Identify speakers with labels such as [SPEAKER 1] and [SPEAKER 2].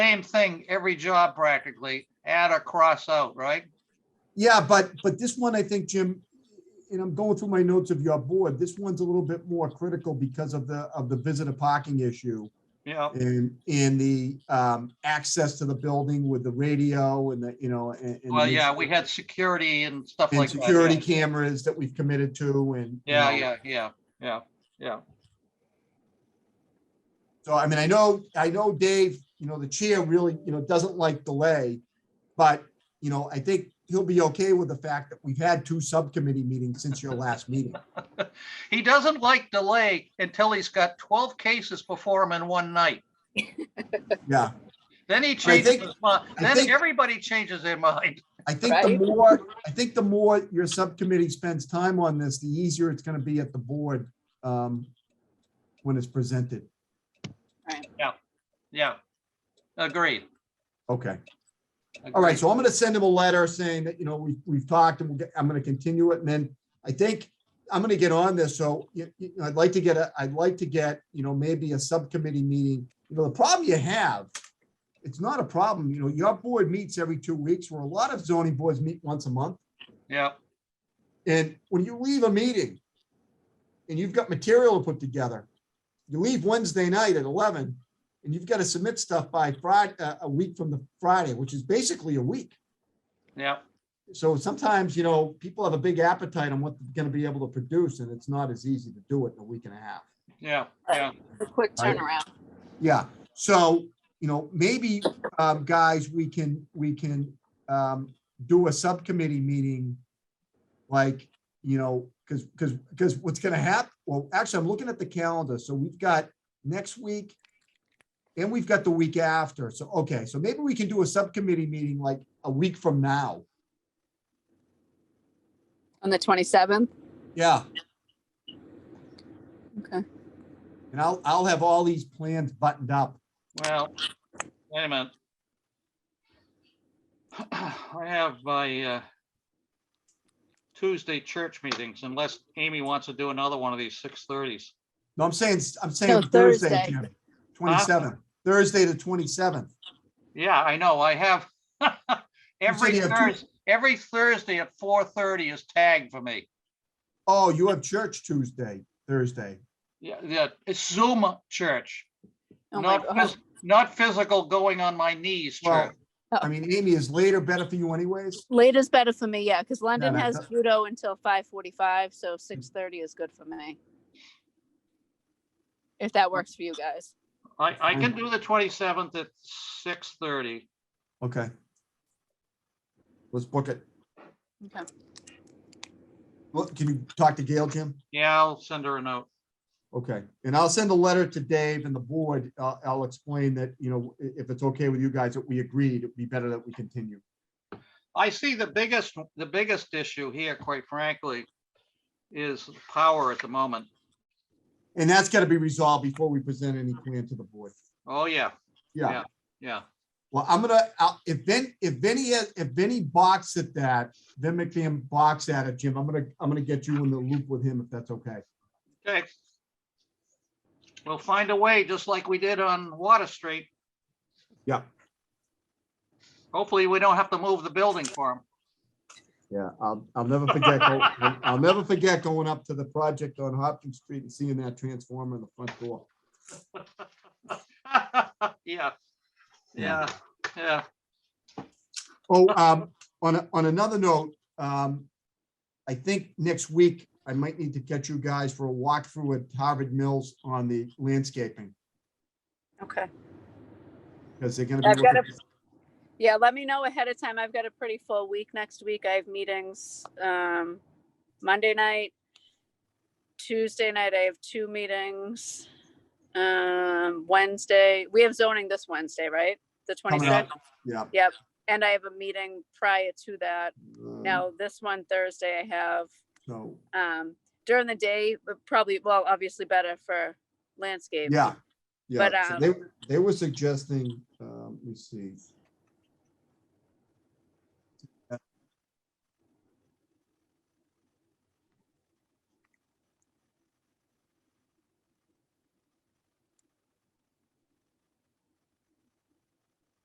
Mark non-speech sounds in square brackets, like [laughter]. [SPEAKER 1] same thing, every job practically, add or cross out, right?
[SPEAKER 2] Yeah, but, but this one, I think, Jim, and I'm going through my notes of your board, this one's a little bit more critical because of the, of the visitor parking issue
[SPEAKER 1] Yeah,
[SPEAKER 2] and, and the um, access to the building with the radio and the, you know, and. and
[SPEAKER 1] well, yeah, we had security and stuff
[SPEAKER 2] And
[SPEAKER 1] like that. yeah.
[SPEAKER 2] security cameras that we've committed to and. you
[SPEAKER 1] Yeah,
[SPEAKER 2] know,
[SPEAKER 1] yeah, yeah, yeah, yeah.
[SPEAKER 2] So I mean, I know, I know Dave, you know, the chair really, you know, doesn't like delay. But, you know, I think he'll be okay with the fact that we've had two subcommittee meetings since your
[SPEAKER 1] [laughs]
[SPEAKER 2] last meeting.
[SPEAKER 1] He doesn't like delay until he's got twelve cases before him in one night.
[SPEAKER 2] Yeah.
[SPEAKER 1] Then he changes
[SPEAKER 2] think-
[SPEAKER 1] his mind.
[SPEAKER 2] I
[SPEAKER 1] Then
[SPEAKER 2] think-
[SPEAKER 1] everybody changes their mind.
[SPEAKER 2] I think the
[SPEAKER 3] Right?
[SPEAKER 2] more, I think the more your subcommittee spends time on this, the easier it's gonna be at the board um, when it's presented.
[SPEAKER 1] Yeah. Agreed.
[SPEAKER 2] Okay, all right, so I'm gonna send him a letter saying that, you know, we, we've talked and we'll get- I'm gonna continue it, and then I think I'm gonna get on this, so you- you know, I'd like to get a, I'd like to get, you know, maybe a subcommittee meeting. You know, the problem you have, it's not a problem, you know, your board meets every two weeks, where a lot of zoning boards meet once a month.
[SPEAKER 1] Yeah,
[SPEAKER 2] And when you leave a meeting and you've got material to put together, you leave Wednesday night at eleven and you've got to submit stuff by Friday, uh, a week from the Friday, which is basically a week.
[SPEAKER 1] yeah,
[SPEAKER 2] So sometimes, you know, people have a big appetite on what they're going to be able to produce and it's not as easy to do it in a week and a half.
[SPEAKER 1] yeah, yeah.
[SPEAKER 3] A quick
[SPEAKER 2] I-
[SPEAKER 3] turnaround.
[SPEAKER 2] Yeah, so, you know, maybe, um, guys, we can, we can, um, do a subcommittee meeting. Like, you know, cause, cause, cause what's gonna happen, well, actually, I'm looking at the calendar, so we've got next week. And we've got the week after, so, okay, so maybe we can do a subcommittee meeting like a week from now.
[SPEAKER 3] On the twenty-seventh?
[SPEAKER 2] Yeah.
[SPEAKER 3] Okay.
[SPEAKER 2] And I'll, I'll have all these plans buttoned up.
[SPEAKER 1] Well, wait a minute. [clears throat] I have my uh, Tuesday church meetings unless Amy wants to do another one of these six thirties.
[SPEAKER 2] No, I'm saying, I'm saying
[SPEAKER 3] Thursday.
[SPEAKER 2] Thursday, twenty-seventh, Thursday the twenty-seventh.
[SPEAKER 1] Yeah, I know, I have. [laughs] Every
[SPEAKER 2] you have two-
[SPEAKER 1] Thursday, every Thursday at four thirty is tagged for me.
[SPEAKER 2] Oh, you have church Tuesday, Thursday.
[SPEAKER 1] Yeah, yeah, it's Zoom church,
[SPEAKER 3] Oh my
[SPEAKER 1] not,
[SPEAKER 3] God.
[SPEAKER 1] phys- not physical going on my knees
[SPEAKER 2] Well,
[SPEAKER 1] church.
[SPEAKER 3] Oh.
[SPEAKER 2] I mean, Amy, is later better for you anyways?
[SPEAKER 3] Later's better for me, yeah, because London
[SPEAKER 2] no,
[SPEAKER 3] has
[SPEAKER 2] no.
[SPEAKER 3] judo until five forty-five, so six thirty is good for me. If that works for you guys.
[SPEAKER 1] I, I
[SPEAKER 2] mm.
[SPEAKER 1] can do the twenty-seventh at six thirty.
[SPEAKER 2] Okay. Let's book it.
[SPEAKER 3] Okay.
[SPEAKER 2] Look, can you talk to Gail, Jim?
[SPEAKER 1] Yeah, I'll send her a note.
[SPEAKER 2] Okay, and I'll send a letter to Dave and the board. I'll, I'll explain that, you know, i- if it's okay with you guys, that we agreed, it'd be better that we continue.
[SPEAKER 1] I see the biggest, the biggest issue here, quite frankly, is power at the moment.
[SPEAKER 2] And that's gotta be resolved before we present any plan to the board.
[SPEAKER 1] Oh, yeah,
[SPEAKER 2] Yeah.
[SPEAKER 1] yeah.
[SPEAKER 2] Well, I'm gonna, I'll- if Vin, if Vinny, has- if Vinny box at that, Vin McCam box at it, Jim, I'm gonna, I'm gonna get you in the loop with him if that's okay.
[SPEAKER 1] Okay. We'll find a way, just like we did on Water Street.
[SPEAKER 2] Yeah.
[SPEAKER 1] Hopefully, we don't have to move the building for him.
[SPEAKER 2] Yeah, I'll, I'll never forget, go- I'll I'll never forget going up to the project on Hopkins Street and seeing that transformer in the front door.
[SPEAKER 1] [laughs] Yeah, yeah, yeah.
[SPEAKER 2] Oh, um, on, a- on another note, um, I think next week I might need to get you guys for a walkthrough at Harvard Mills on the landscaping.
[SPEAKER 3] Okay.
[SPEAKER 2] Because they're gonna
[SPEAKER 3] I've
[SPEAKER 2] be,
[SPEAKER 3] got
[SPEAKER 2] looking-
[SPEAKER 3] Yeah, let me know ahead of time. I've got a pretty full week next week. I have meetings um Monday night. Tuesday night, I have two meetings. Um Wednesday, we have zoning this Wednesday, right? The
[SPEAKER 2] Coming up.
[SPEAKER 3] twenty-second,
[SPEAKER 2] yeah.
[SPEAKER 3] and I have a meeting prior to that.
[SPEAKER 2] um,
[SPEAKER 3] Now, this one Thursday, I have
[SPEAKER 2] So,
[SPEAKER 3] um during the day, but probably, well, obviously better for landscape.
[SPEAKER 2] yeah, yeah.
[SPEAKER 3] But,
[SPEAKER 2] So They, they were suggesting, um, let me see.